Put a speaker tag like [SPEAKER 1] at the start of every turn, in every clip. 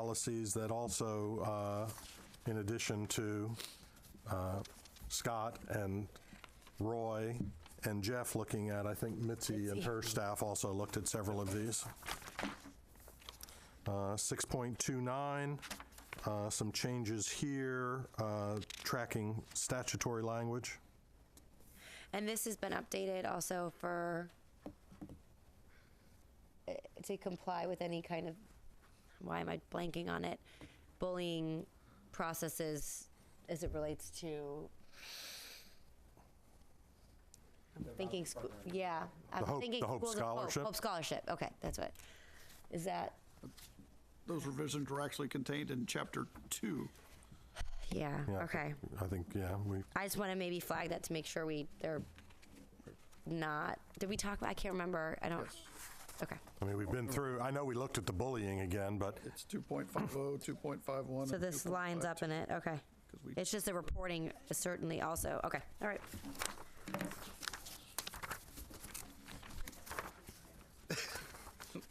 [SPEAKER 1] policies that also, uh, in addition to uh, Scott and Roy and Jeff looking at, I think Mitzi and her staff also looked at several of these. Uh, 6.29, uh, some changes here, uh, tracking statutory language.
[SPEAKER 2] And this has been updated also for, uh, to comply with any kind of, why am I blanking on it? Bullying processes as it relates to. I'm thinking, scho- yeah. I'm
[SPEAKER 1] The Hope-
[SPEAKER 2] thinking
[SPEAKER 1] the Hope
[SPEAKER 2] schools of
[SPEAKER 1] Scholarship?
[SPEAKER 2] Hope Scholarship, okay, that's what. Is that,
[SPEAKER 3] Those revisions were actually contained in chapter two.
[SPEAKER 2] yeah,
[SPEAKER 1] Yeah, I
[SPEAKER 2] okay.
[SPEAKER 1] think- I think, yeah, we,
[SPEAKER 2] I just want to maybe flag that to make sure we, they're not, did we talk about, I can't remember, I don't, okay.
[SPEAKER 1] I mean, we've been through, I know we looked at the bullying again, but
[SPEAKER 3] It's 2.50, 2.51.
[SPEAKER 2] So this lines up in it, okay. It's just the reporting is certainly also, okay, all right.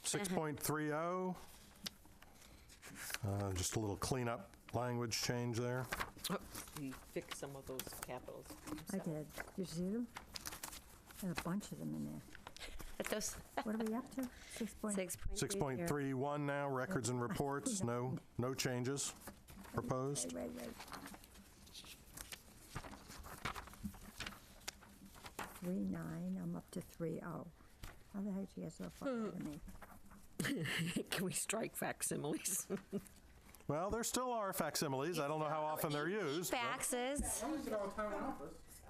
[SPEAKER 1] Six point three oh. Uh, Just a little cleanup language change there.
[SPEAKER 4] You fix some of those capitals.
[SPEAKER 5] I did. You see them? There's a bunch of them in there.
[SPEAKER 2] But those,
[SPEAKER 5] What are we up to? Six point,
[SPEAKER 2] six point
[SPEAKER 1] Six point three one now, records and reports, no, no changes proposed.
[SPEAKER 5] right, right. Three nine, I'm up to three oh. How the heck did you get so
[SPEAKER 4] Hmm.
[SPEAKER 5] far ahead of me?
[SPEAKER 4] Can we strike facsimiles?
[SPEAKER 1] Well, there still are facsimiles, I don't know how often they're used. but-
[SPEAKER 2] Faxes.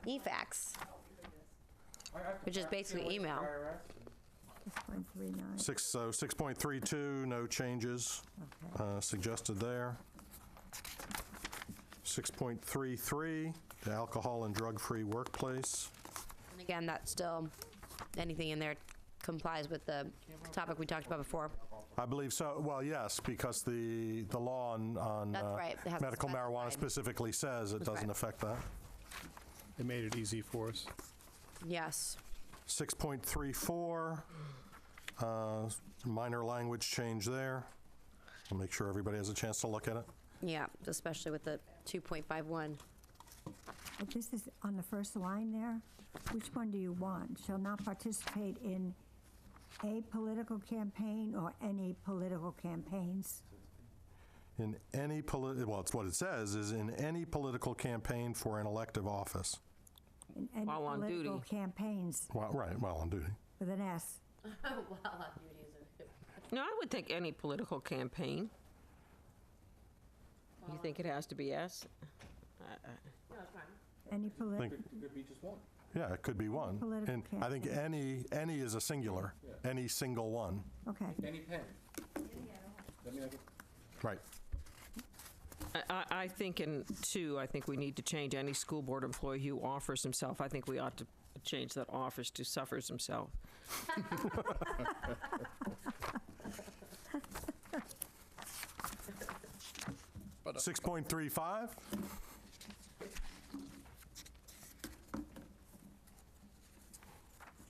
[SPEAKER 2] E-fax. Which is basically email.
[SPEAKER 5] Six point three nine,
[SPEAKER 1] Six, so six point three two, no changes
[SPEAKER 5] okay.
[SPEAKER 1] uh, suggested there. Six point three three, the alcohol and drug-free workplace.
[SPEAKER 2] And again, that's still, anything in there complies with the topic we talked about before.
[SPEAKER 1] I believe so. Well, yes, because the, the law on, on
[SPEAKER 2] That's
[SPEAKER 1] uh,
[SPEAKER 2] right. It has to
[SPEAKER 1] medical marijuana
[SPEAKER 2] specify.
[SPEAKER 1] specifically says it doesn't
[SPEAKER 2] right.
[SPEAKER 1] affect that.
[SPEAKER 6] They made it easy for us.
[SPEAKER 2] Yes.
[SPEAKER 1] 6.34, uh, minor language change there. I'll make sure everybody has a chance to look at it.
[SPEAKER 2] Yeah, especially with the 2.51.
[SPEAKER 5] But this is on the first line there. Which one do you want? Shall not participate in a political campaign or any political campaigns?
[SPEAKER 1] In any polit, well, it's what it says, is in any political campaign for an elective office.
[SPEAKER 5] In any
[SPEAKER 4] While on duty.
[SPEAKER 5] political campaigns
[SPEAKER 1] Well, right, while on duty.
[SPEAKER 5] with an S.
[SPEAKER 4] No, I would think any political campaign. You think it has to be S?
[SPEAKER 5] Any
[SPEAKER 1] Think-
[SPEAKER 5] political,
[SPEAKER 1] Yeah, it could be one.
[SPEAKER 5] Political
[SPEAKER 1] And I think any, any is a singular, any single one.
[SPEAKER 5] okay.
[SPEAKER 7] Any pen?
[SPEAKER 1] Right.
[SPEAKER 4] I, I- I think in two, I think we need to change any school board employee who offers himself. I think we ought to change that offers to suffers himself.
[SPEAKER 3] But
[SPEAKER 1] 6.35?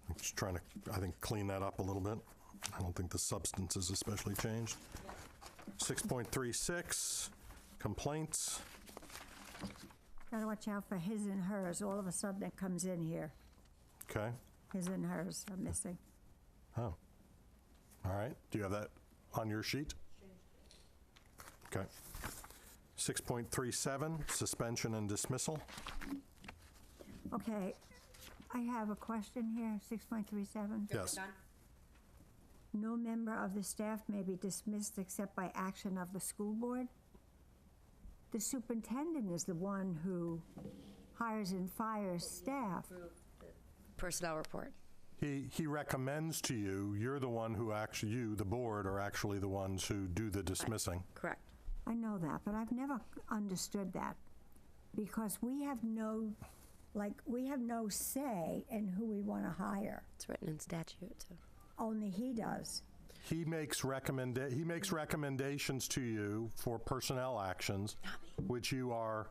[SPEAKER 1] I'm Just trying to, I think, clean that up a little bit. I don't think the substance is especially changed. 6.36, complaints.
[SPEAKER 5] Gotta watch out for his and hers. All of a sudden it comes in here.
[SPEAKER 1] Okay,
[SPEAKER 5] His and hers are missing.
[SPEAKER 1] all right. Do you have that on your sheet? Okay. 6.37, suspension and dismissal.
[SPEAKER 5] Okay, I have a question here, 6.37.
[SPEAKER 1] Yes.
[SPEAKER 5] No member of the staff may be dismissed except by action of the school board. The superintendent is the one who hires and fires staff.
[SPEAKER 2] Personnel report.
[SPEAKER 1] He, he recommends to you, you're the one who actually, you, the board, are actually the ones who do the dismissing.
[SPEAKER 2] Correct.
[SPEAKER 5] I know that, but I've never understood that because we have no, like, we have no say in who we want to hire.
[SPEAKER 2] It's written in statute, so.
[SPEAKER 5] Only he does.
[SPEAKER 1] He makes recommend, he makes recommendations to you for personnel actions, which you are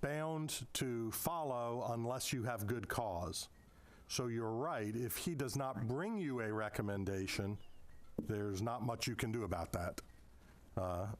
[SPEAKER 1] bound to follow unless you have good cause. So you're right, if he does not bring you a recommendation, there's not much you can do about that. uh,